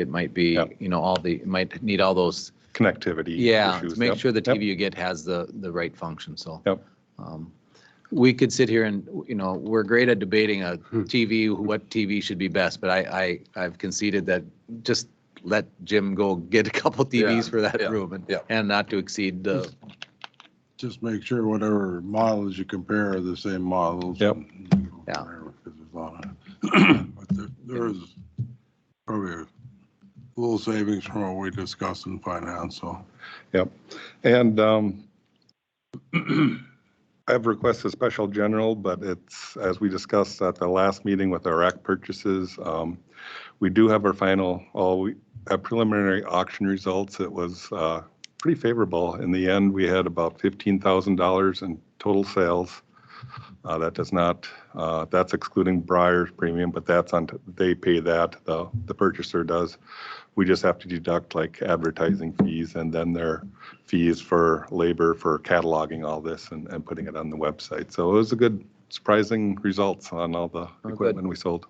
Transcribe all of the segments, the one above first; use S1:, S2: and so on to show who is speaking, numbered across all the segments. S1: It might be,
S2: Yep.
S1: you know, all the, it might need all those,
S2: connectivity.
S1: yeah, to
S2: issues.
S1: make
S2: Yep,
S1: sure the
S2: yep.
S1: TV you get has the, the right function, so.
S2: Yep.
S1: um, We could sit here and, you know, we're great at debating a TV, what TV should be best, but I, I, I've conceded that just let Jim go get a couple TVs for that
S3: yeah,
S1: room and,
S3: yeah.
S1: and not to exceed the,
S4: Just make sure whatever models you compare are the same models.
S2: Yep.
S1: Yeah.
S4: Because there's a lot of- But there- there is probably a little savings from what we discussed in finance, so.
S2: Yep. And um, I've requested special general, but it's, as we discussed at the last meeting with our rack purchases, um, we do have our final, all, we- uh, preliminary auction results. It was uh, pretty favorable. In the end, we had about $15,000 in total sales. Uh, That does not, uh, that's excluding Briar's premium, but that's on, they pay that, the the purchaser does. We just have to deduct like advertising fees and then their fees for labor for cataloging all this and, and putting it on the website. So it was a good surprising results on all the
S1: good.
S2: equipment we sold.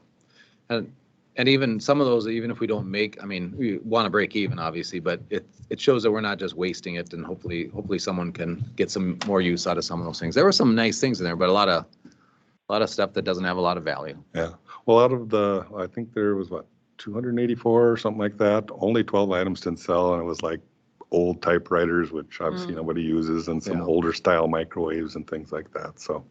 S1: and, and even some of those, even if we don't make, I mean, we want to break even, obviously, but it, it shows that we're not just wasting it and hopefully, hopefully someone can get some more use out of some of those things. There were some nice things in there, but a lot of, a lot of stuff that doesn't have a lot of value.
S2: Yeah. Well, out of the, I think there was what, 284 or something like that, only 12 items didn't sell and it was like old typewriters, which obviously nobody uses and some
S1: Yeah.
S2: older style microwaves and things like that. So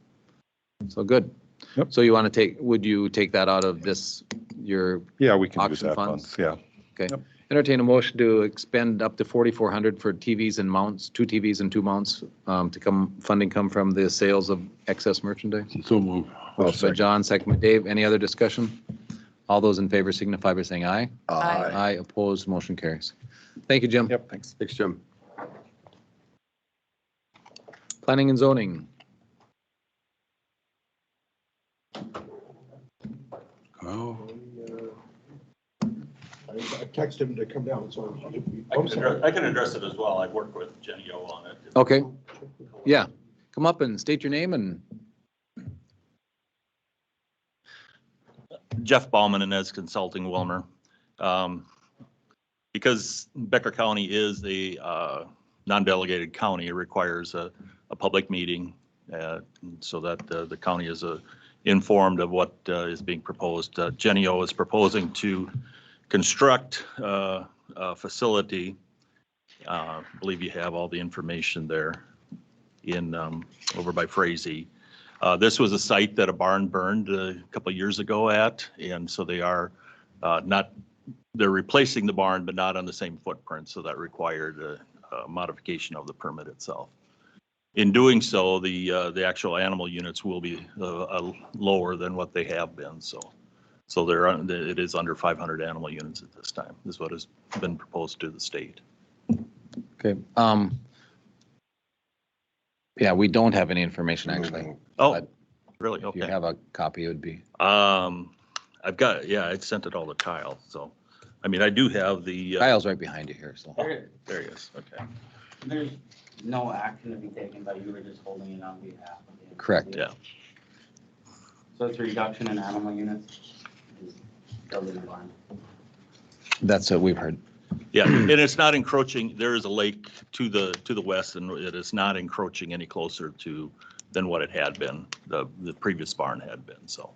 S1: So good.
S2: Yep.
S1: So you want to take, would you take that out of this, your,
S2: yeah, we can use
S1: Auction
S2: that
S1: funds?
S2: funds. Yeah.
S1: entertain a motion to expend up to 4,400 for TVs and mounts, two TVs and two mounts, um, to come, funding come from the sales of excess merchandise?
S4: So move.
S1: Motion by John, second by Dave. Any other discussion? All those in favor signify by saying aye.
S3: Aye.
S1: Aye, opposed, motion carries. Thank you, Jim.
S2: Yep. Thanks.
S3: Uh, Thanks, Jim.
S1: Planning and zoning.
S4: Oh,
S5: I I texted him to come down, so. I'm-
S6: I
S5: I'm
S6: can,
S5: sorry.
S6: address- I can address it as well. I've worked with Jenny O on it.
S1: Okay, yeah. Come up and state your name and,
S6: Jeff Bauman and Ez Consulting Wilmer. Um, Because Becker County is a uh, non-delegated county, it requires a, a public meeting uh, so that uh, the county is uh, informed of what uh, is being proposed. Uh, Jenny O is proposing to construct uh, a facility. Uh, I believe you have all the information there in, um, over by Frazee. Uh, This was a site that a barn burned a couple years ago at, and so they are uh, not, they're replacing the barn, but not on the same footprint, so that required a- a modification of the permit itself. In doing so, the, uh, the actual animal units will be uh, uh, lower than what they have been, so. So they're, un- it is under 500 animal units at this time, is what has been proposed to the state.
S1: okay. um, Yeah, we don't have any information, actually.
S6: Oh,
S1: But-
S6: really?
S1: If you
S6: Okay.
S1: have a copy, it would be,
S6: Um, I've got, yeah, I sent it all to Kyle, so, I mean, I do have the. uh,
S1: Kyle's right behind you here, so.
S7: There,
S6: There he is, okay.
S7: there's no action to be taken, but you were just holding it on behalf of the.
S1: Correct.
S6: Yeah.
S7: So it's a reduction in animal units, just building a barn.
S1: That's what we've heard.
S6: Yeah, and it's not encroaching, there is a lake to the, to the west, and it is not encroaching any closer to than what it had been, the, the previous barn had been, so.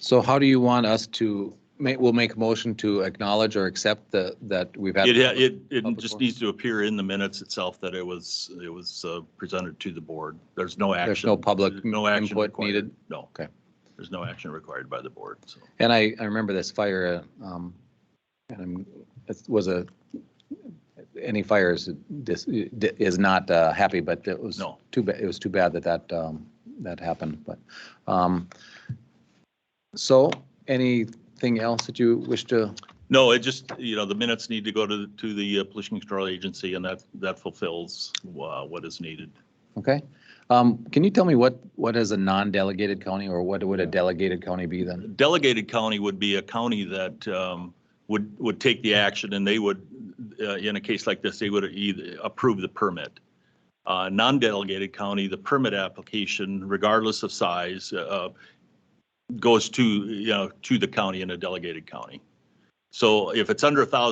S1: So how do you want us to, ma- we'll make a motion to acknowledge or accept the, that we've had.
S6: It, ha- it, it
S1: Public
S6: just
S1: forum.
S6: needs to appear in the minutes itself that it was, it was uh, presented to the board. There's no action.
S1: no public
S6: no action
S1: input
S6: required.
S1: needed?
S6: No.
S1: Okay.
S6: There's no action required by the board, so.
S1: And I, I remember this fire, uh, um, and I'm, it was a, any fire is, dis- is not uh, happy, but it was.
S6: No.
S1: Too bad, it was too bad that that, um, that happened, but, um, so anything else that you wish to,
S6: No, it just, you know, the minutes need to go to, the- to the uh, pollution control agency, and that, that fulfills uh, what is needed.
S1: okay? Um, can you tell me what, what is a non-delegated county or what would a delegated county be then?
S6: Delegated county would be a county that um, would, would take the action and they would, uh, in a case like this, they would either approve the permit. Uh, Non-delegated county, the permit application, regardless of size, uh, goes to, you know, to the county in a delegated county. So if it's under a thousand